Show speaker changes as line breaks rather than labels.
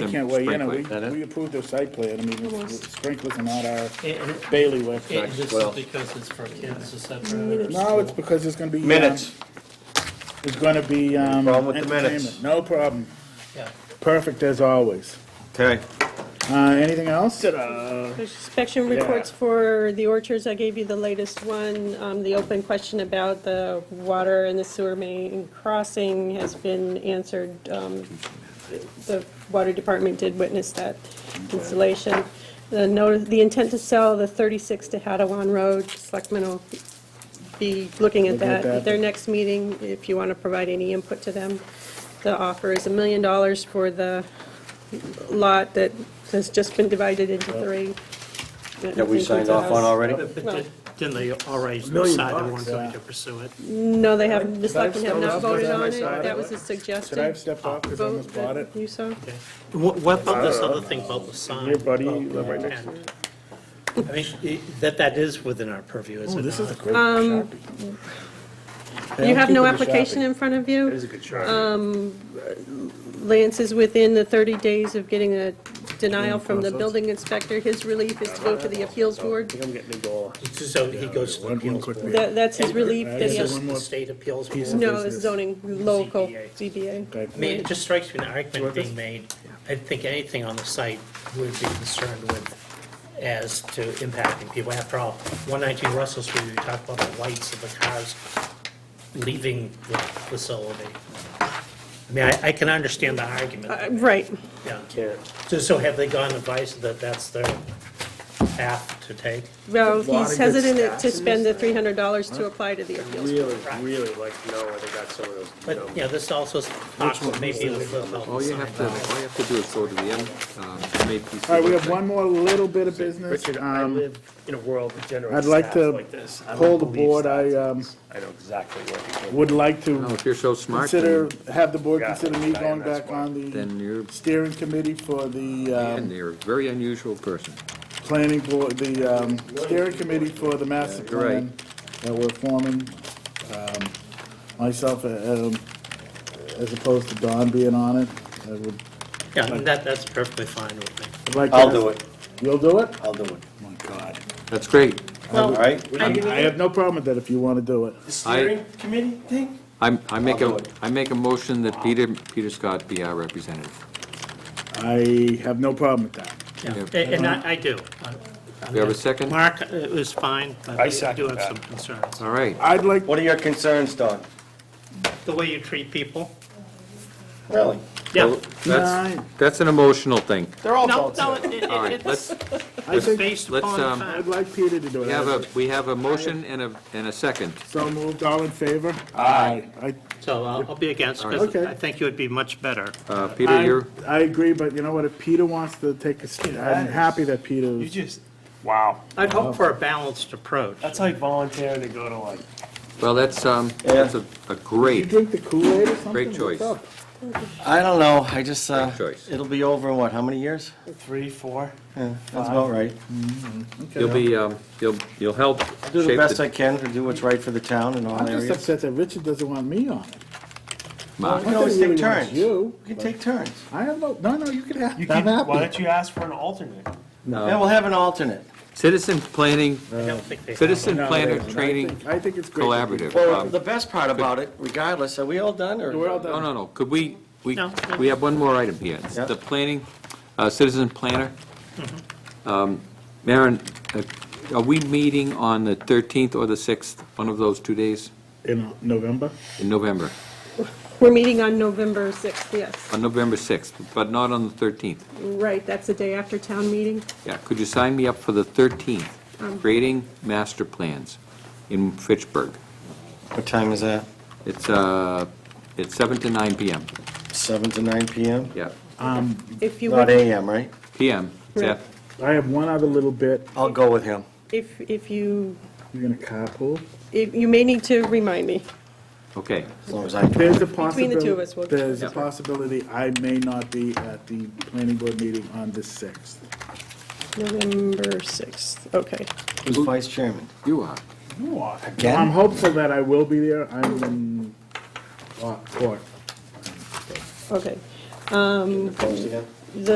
Really can't weigh in, we,
Sprinkler.
we approved the site plan, I mean, sprinklers are not our
It- it-
bailiwick.
It's
Well-
just because it's for kids, is that for?
No, it's because it's gonna be. um,
Minutes.
It's gonna be, um.
problem with the minutes?
entertainment. No problem,
Yeah.
perfect as always.
Okay.
Uh, anything else?
Inspection reports for the orchards, I gave you the latest one. Um, The open question about the water and the sewer main crossing has been answered. Um, The water department did witness that installation. The notice, the intent to sell the 36 to Hadawan Road, Selectmen will be looking at
Looking at
that
that.
at their next meeting, if you want to provide any input to them. The offer is a million dollars for the lot that has just been divided into three.
That we signed off on already?
But but
Well-
did- didn't they already
million
decide they
bucks,
weren't going
yeah.
to pursue it?
No, they haven't, the
Should I have
selectmen have
stepped
not
up?
voted
Should I
on it,
decide?
that was a
Should I have
suggested
stepped off, cause I
vote
almost bought
that
it?
you saw.
Okay. What what about this other thing about the sign?
Here, buddy,
About
live right
the
next
tent? I mean, i- that, that is within our purview, is
Oh,
it
this is a
not?
great Sharpie.
You Um, have no
Keep it as
application
shopping.
in front of
It is
you.
a good Sharpie.
Lance is within the 30 days of getting a denial from the building inspector. His relief is to go to the appeals board.
I'm getting a goal.
So he goes to the
One- one
appeals
quick
board.
That, that's his relief that
Is
he
this
has.
the state appeals board?
No, it's zoning, local,
Okay.
ZBA.
I mean, it just strikes me an argument being made, I think anything on the site would be concerned with as to impacting people. After all, 119 Russell Street, we talked about the lights of the cars leaving the facility. I mean, I, I can understand the
Uh,
argument,
Right,
yeah.
Can't.
So, so have they gone advice that that's their path to take?
well,
Lot of
he's
good
hesitant
stats
to
in
spend the $300 to apply to the appeals.
Really, really like to know where they got some of those.
But, yeah, this also talks maybe a little bit about
All
the
you
sign.
have to, all you have to do is go to the end, um, made piece.
All right, we have one more little bit of business.
Richard, I
Um,
live in a world with general
I'd like
staff
to
like this. I
poll
don't
the
believe
board. I,
stats.
um,
I know exactly where people.
would like
No,
to
if you're so smart,
consider,
then,
have the board
Yeah,
consider me
I am,
going
that's
back
why.
on the
then you're,
steering committee for the, um,
and you're a very unusual person.
planning board, the um, steering committee for the master
You're
plan
right.
that we're forming, um, myself, uh, um, as opposed to Don being on it, I would
Yeah, I mean, that, that's perfectly fine with me.
I'd like. to
I'll
ask-
do it,
You'll do it?
I'll do it,
Oh my God.
That's great.
all right?
I have no problem with that if you want to do it.
steering
committee thing?
I, I make
I'll
a,
do it.
I make a motion that Peter, Peter Scott be our representative.
I have no problem with that.
Yeah,
Yeah.
and- and I, I do.
Do you have a second?
Mark, it was fine, but
I
I do
second
have
that.
some concerns.
All right,
I'd like,
What are your concerns, Don?
The way you treat people,
Really?
yeah.
that's,
Nine.
that's an emotional thing.
They're all
No,
adults
no,
now.
it- it-
All right,
it's
let's,
I think,
based
let's,
upon the
um,
I'd
fact.
like Peter to do it.
we have a, we have a motion and a, and a second.
So moved, all in favor? Aye. I,
So I'll I'll be against, because
Okay.
I think you would be much better.
Uh, Peter,
I,
you're,
I agree, but you know what, if Peter wants to take a, st- I'm happy that Peter,
just. Wow.
I'd hope for a balanced approach.
That's like volunteering to go to like.
well, that's, um, that's a,
you
a great,
drink the Kool-Aid or something?
Great
What's
choice.
up?
I don't know, I just, uh,
Good choice.
it'll be over in what, how many years?
Three, four.
Yeah, That's about right.
you'll be, um, you'll, you'll help
Do the
shape
best I
the
can to do what's right for the town and all
I'm just
areas.
upset that Richard doesn't want me on it.
We
Not
mark.
can
that
always
he
take
really wants
turns.
you,
We can
but-
take turns.
I have no, no, no, you can have,
You
I'm
can, why
happy.
don't you ask for an alternate?
Oh.
Yeah, we'll have an alternate.
Citizen planning,
I don't think they.
citizen
No,
planner
I
training
think- I think it's great.
collaborative.
Well,
Um,
the best part about it, regardless, are we all done or?
We're all done.
No, no, no, could we, we,
No.
we have one more item here. It's
Yeah.
The planning, uh, citizen planner.
Mm-hmm.
Um, Maren, uh, are we meeting on the 13th or the 6th, one of those two days
In November?
in November?
We're meeting on November 6th, yes.
On November 6th, but not on the 13th.
Right, that's the day after town meeting.
Yeah, could you sign me up for the 13th,
Um.
creating master plans in Fitchburg?
What time is that?
It's, uh, it's 7 to 9 PM,
Seven to nine PM?
yeah,
If you
Not
would,
AM, right?
PM, It's
Right.
af-
I have one other little bit,
I'll go with him.
if, if you,
you're gonna carpool?
if- you may need to remind me.
okay.
As long as I,
There's a
Between the two of us, we'll-
possibility, there's a
Yeah.
possibility I may not be at the planning board meeting on the sixth.
November 6th, okay.
who's vice chairman?
You are.
I'm
Again?
hopeful that I will be there, I'm in, uh, court.
Okay.
Opposed again?